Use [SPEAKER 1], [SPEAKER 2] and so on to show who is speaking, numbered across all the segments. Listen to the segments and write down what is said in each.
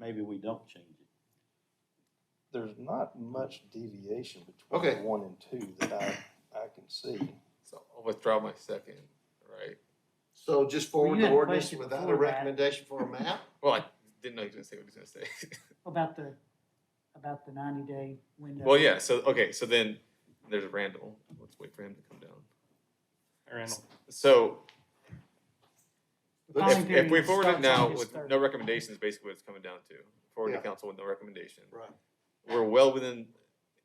[SPEAKER 1] maybe we don't change it.
[SPEAKER 2] There's not much deviation
[SPEAKER 3] Okay.
[SPEAKER 2] between one and two that I, I can see.
[SPEAKER 4] So I'll withdraw my second, right?
[SPEAKER 3] So just
[SPEAKER 5] Well,
[SPEAKER 3] forward
[SPEAKER 5] you
[SPEAKER 3] the
[SPEAKER 5] had a
[SPEAKER 3] ordinance
[SPEAKER 5] question
[SPEAKER 3] without a
[SPEAKER 5] before that.
[SPEAKER 3] recommendation for a map?
[SPEAKER 4] Well, I didn't know he was gonna say what he was gonna say.
[SPEAKER 5] About the, about the ninety day window.
[SPEAKER 4] Well, yeah, so, okay, so then there's Randall. Let's wait for him to come down.
[SPEAKER 6] Randall.
[SPEAKER 4] So
[SPEAKER 5] The filing
[SPEAKER 4] if, if we
[SPEAKER 5] period
[SPEAKER 4] forward it
[SPEAKER 5] starts
[SPEAKER 4] now
[SPEAKER 5] on his
[SPEAKER 4] with
[SPEAKER 5] third.
[SPEAKER 4] no recommendations, basically what it's coming down to. Forward to
[SPEAKER 3] Yeah.
[SPEAKER 4] council with no recommendation.
[SPEAKER 3] Right.
[SPEAKER 4] We're well within,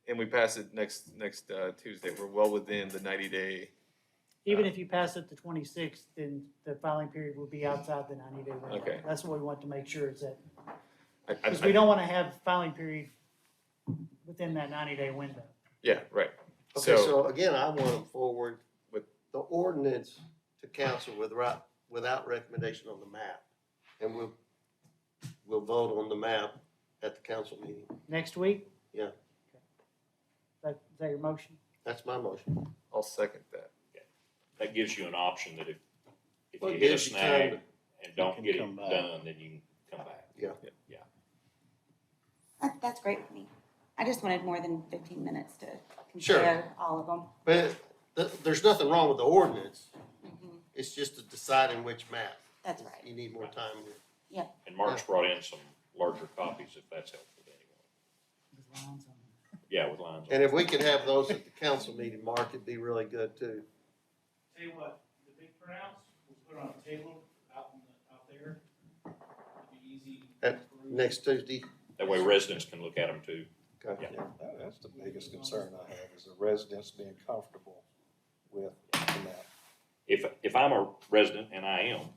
[SPEAKER 4] and we pass it next, next, uh, Tuesday. We're well within the ninety day.
[SPEAKER 5] Even if you pass it the twenty-sixth, then the filing period will be outside the ninety day window.
[SPEAKER 4] Okay.
[SPEAKER 5] That's what we want to make sure is that,
[SPEAKER 4] I, I,
[SPEAKER 5] because we
[SPEAKER 4] I,
[SPEAKER 5] don't want to have filing period within that ninety day window.
[SPEAKER 4] yeah, right.
[SPEAKER 3] Okay,
[SPEAKER 4] So,
[SPEAKER 3] so again, I want to forward
[SPEAKER 4] With-
[SPEAKER 3] the ordinance to council without, without recommendation on the map. And we'll, we'll vote on the map at the council meeting.
[SPEAKER 5] Next week?
[SPEAKER 3] Yeah.
[SPEAKER 5] Okay. That, is that your motion?
[SPEAKER 3] That's my motion.
[SPEAKER 4] I'll second that.
[SPEAKER 7] that gives you an option that if, if
[SPEAKER 3] Well,
[SPEAKER 7] you
[SPEAKER 3] it
[SPEAKER 7] hit a
[SPEAKER 3] gives you time
[SPEAKER 7] snag and
[SPEAKER 1] You
[SPEAKER 7] don't
[SPEAKER 1] can
[SPEAKER 7] get it
[SPEAKER 1] come back.
[SPEAKER 7] done, then you can come back.
[SPEAKER 8] That, that's great for me. I just wanted more than fifteen minutes to
[SPEAKER 3] Sure.
[SPEAKER 8] compare all of them.
[SPEAKER 3] But th- there's nothing wrong with the ordinance.
[SPEAKER 8] Mhm.
[SPEAKER 3] It's just to deciding which map.
[SPEAKER 8] That's right.
[SPEAKER 3] You need more time.
[SPEAKER 7] And Mark's brought in some larger copies if that's helpful to anyone.
[SPEAKER 5] With lines on it.
[SPEAKER 7] Yeah, with lines on
[SPEAKER 3] And if we could have those at the council meeting, Mark, it'd be really good too.
[SPEAKER 9] Tell you what, the big printouts, we'll put on a table out in the, out there. It'll be easy.
[SPEAKER 3] At Next Tuesday.
[SPEAKER 7] it. That way residents can look at them too.
[SPEAKER 3] Okay.
[SPEAKER 2] That- That's the biggest concern I have, is the residents being comfortable with the map.
[SPEAKER 7] If, if I'm a resident, and I am,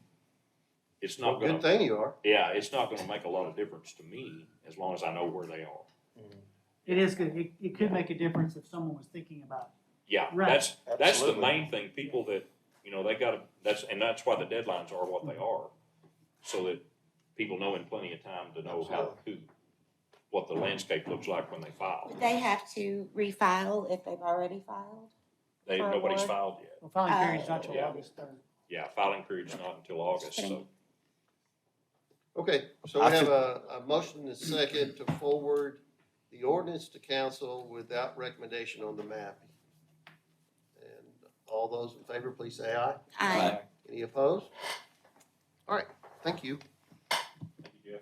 [SPEAKER 7] it's
[SPEAKER 3] Well,
[SPEAKER 7] not
[SPEAKER 3] good
[SPEAKER 7] gonna,
[SPEAKER 3] thing you are.
[SPEAKER 7] yeah, it's not gonna make a lot of difference to me as long as I know where they are.
[SPEAKER 5] It is good. It, it could make a difference if someone was thinking about
[SPEAKER 7] Yeah,
[SPEAKER 5] Right.
[SPEAKER 7] that's, that's the
[SPEAKER 2] Absolutely.
[SPEAKER 7] main thing, people that, you know, they gotta, that's, and that's why the deadlines are what they are. So that people know in plenty of time to know how, who, what the landscape looks like when they file.
[SPEAKER 8] Would they have to refile if they've already filed?
[SPEAKER 7] They,
[SPEAKER 8] For
[SPEAKER 7] nobody's
[SPEAKER 8] what?
[SPEAKER 7] filed yet.
[SPEAKER 5] it. Well, filing period's not till
[SPEAKER 7] Yeah.
[SPEAKER 5] August third.
[SPEAKER 7] Yeah, filing period's not until August, so
[SPEAKER 3] Okay, so
[SPEAKER 4] I
[SPEAKER 3] we have
[SPEAKER 4] think-
[SPEAKER 3] a, a motion and a second to forward the ordinance to council without recommendation on the map. And all those in favor, please say aye.
[SPEAKER 8] I,
[SPEAKER 3] Any opposed? All right, thank you.
[SPEAKER 7] yeah,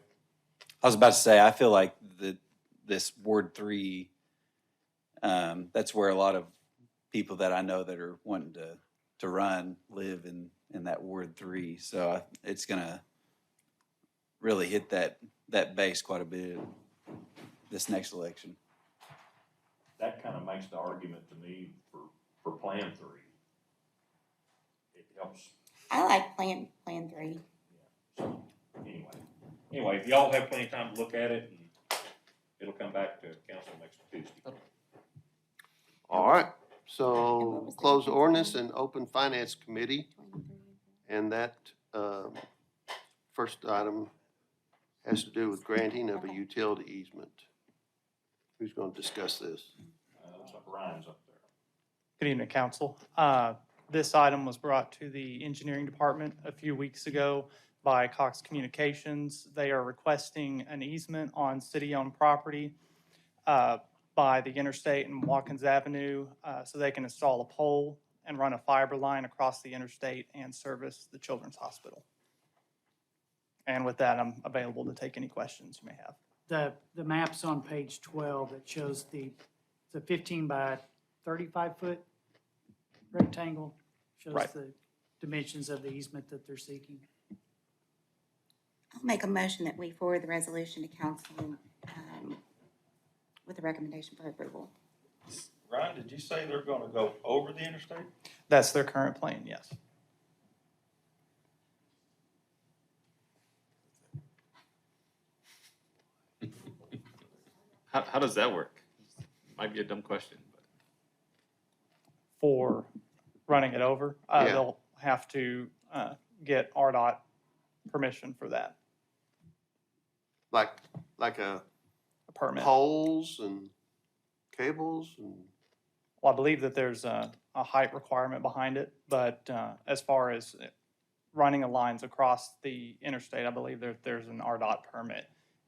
[SPEAKER 10] I was about to say, I feel like the this word three, um, that's where a lot of people that I know that are wanting to to run live in in that word three. So I, it's gonna really hit that that base quite a bit this next election.
[SPEAKER 7] that kind of makes the argument to me for, for Plan Three. It helps,
[SPEAKER 8] I like plan, plan three.
[SPEAKER 7] so, anyway. Anyway, if y'all have plenty of time to look at it, and it'll come back to council next Tuesday.
[SPEAKER 3] All right,
[SPEAKER 8] And what
[SPEAKER 3] so
[SPEAKER 8] was the-
[SPEAKER 3] close the ordinance and open finance committee,
[SPEAKER 8] Plan three.
[SPEAKER 3] and that, um, first item has to do with granting of a utility easement. Who's gonna discuss this?
[SPEAKER 7] Uh, looks like Ryan's up there.
[SPEAKER 6] Good evening, council. Uh, This item was brought to the engineering department a few weeks ago by Cox Communications. They are requesting an easement on city-owned property uh, by the interstate and Watkins Avenue uh, so they can install a pole and run a fiber line across the interstate and service the children's hospital. And with that, I'm available to take any questions you may have.
[SPEAKER 5] The, the map's on page twelve that shows the, the fifteen by thirty-five foot rectangle. Shows
[SPEAKER 6] Right.
[SPEAKER 5] the dimensions of the easement that they're seeking.
[SPEAKER 8] I'll make a motion that we forward the resolution to council, um, with a recommendation for approval.
[SPEAKER 11] Ryan, did you say they're gonna go over the interstate?
[SPEAKER 6] That's their current plan, yes.
[SPEAKER 4] How, how does that work? Might be a dumb question, but.
[SPEAKER 6] for running it over. Uh,
[SPEAKER 3] Yeah.
[SPEAKER 6] They'll have to uh, get RDOT permission for that
[SPEAKER 3] Like, like a
[SPEAKER 6] permit. Well,
[SPEAKER 3] poles and cables and,
[SPEAKER 6] I believe that there's a, a height requirement behind it, but uh, as far as running the lines across the interstate, I believe there, there's an RDOT permit